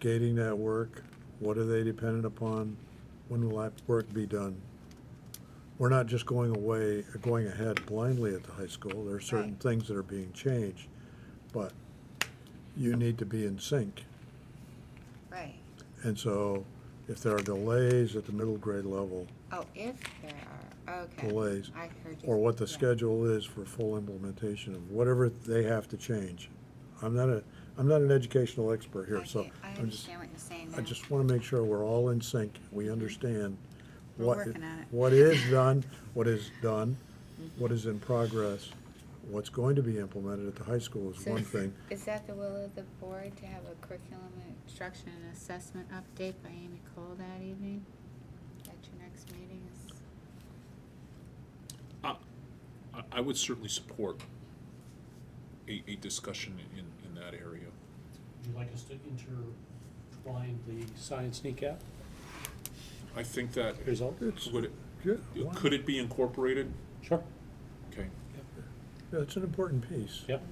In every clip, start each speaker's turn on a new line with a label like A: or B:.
A: gating that work? What are they dependent upon? When will that work be done? We're not just going away, going ahead blindly at the high school. There are certain
B: Right.
A: things that are being changed, but you need to be in sync.
B: Right.
A: And so if there are delays at the middle grade level,
B: Oh, if there are, okay.
A: Delays,
B: I heard you.
A: or what the
B: yeah.
A: schedule is for full implementation of whatever they have to change. I'm not a, I'm not an educational expert here,
B: Okay,
A: so
B: I
A: I'm just,
B: understand what you're saying
A: I
B: now.
A: just want to make sure we're all in sync, we understand
B: We're
A: what,
B: working on it.
A: what is done, what is done, what is in progress, what's going to be implemented at the high school is
B: So
A: one
B: is-
A: thing.
B: Is that the will of the board to have a curriculum instruction and assessment update by Amy Cole that evening? At your next meeting is,
C: I, I- I would certainly support a, a discussion in, in that area.
D: Would you like us to intertwine the science kneecap
C: I think that,
D: result?
A: It's,
C: would it,
A: yeah, why-
C: could it be incorporated?
D: Sure.
C: Okay,
A: yeah, it's an important piece.
D: Yep,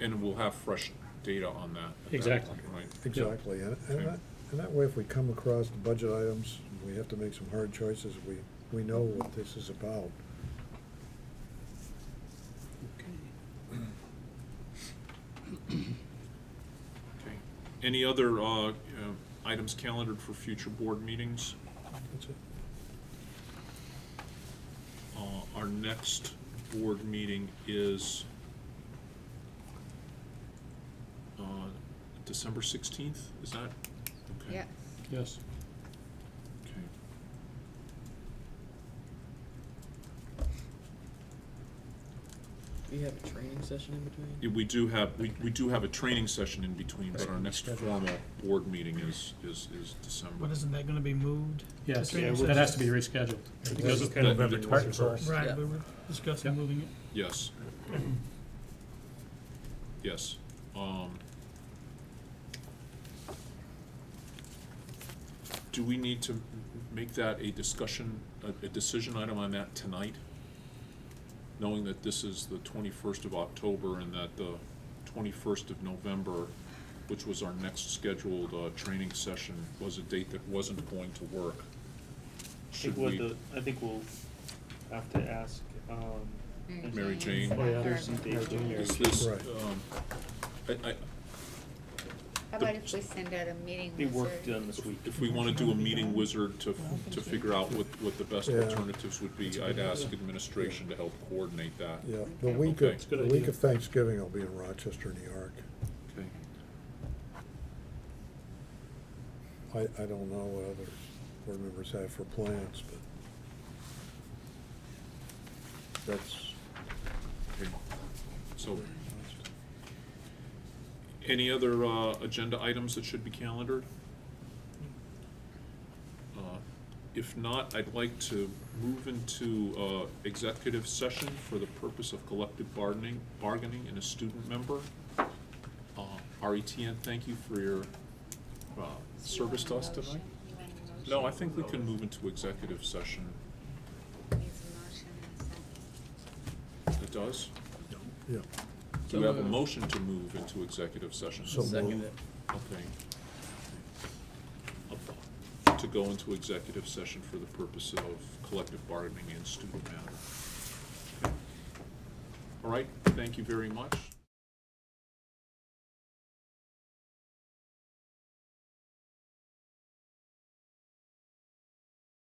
C: and we'll have fresh data on that. at that
D: Exactly.
C: point, Right,
A: Exactly, and, and
C: Okay.
A: that, and that way, if we come across the budget items, we have to make some hard choices, we, we know what this is about.
C: okay. Any other, uh, uh, items calendared for future board meetings?
A: That's it.
C: Uh, our next board meeting is uh, December sixteenth, is that? Okay.
B: yeah,
D: yes.
C: Okay.
E: We have a training session in between.
C: Yeah, We do have, we, we do have a training session in between, but our
F: Right.
C: next formal board meeting is, is, is December.
F: But isn't that gonna be moved?
D: Yes,
F: Yeah,
D: that has to be rescheduled. because of
C: That- that-
F: Right,
E: Yeah.
F: we were discussing moving it.
C: Yes. Yes, um. Do we need to m- make that a discussion, a, a decision item on that tonight? Knowing that this is the twenty-first of October and that the twenty-first of November, which was our next scheduled, uh, training session, was a date that wasn't going to work.
G: I
C: Should
G: think we'll,
C: we,
G: do- I think we'll have to ask, um,
C: Mary Jane.
D: Oh, yeah,
G: there's some dates in here.
C: is this, um,
A: Right.
C: I, I,
B: How about if we send out a meeting
G: they
B: wizard?
G: worked on this week.
C: If we wanna do a meeting wizard to, to figure out what, what the best
A: Yeah.
C: alternatives would be, I'd ask administration to help coordinate that.
A: Yeah, the week of,
C: It's
D: a
A: the
D: good
A: week
D: idea.
A: of Thanksgiving, I'll be in Rochester, New York.
C: Okay.
A: I, I don't know what other board members have for plans, but that's,
C: Okay. So, any other, uh, agenda items that should be calendared? Uh, If not, I'd like to move into, uh, executive session for the purpose of collective bargaining, bargaining and a student member. Uh, RETN, thank you for your, uh, service to us tonight. No, I think we can move into executive session. It does?
A: yeah.
C: Do we have a motion to move into executive session?
A: So
E: Second
A: moved.
E: it.
C: Okay. To go into executive session for the purpose of collective bargaining and student matter. All right, thank you very much.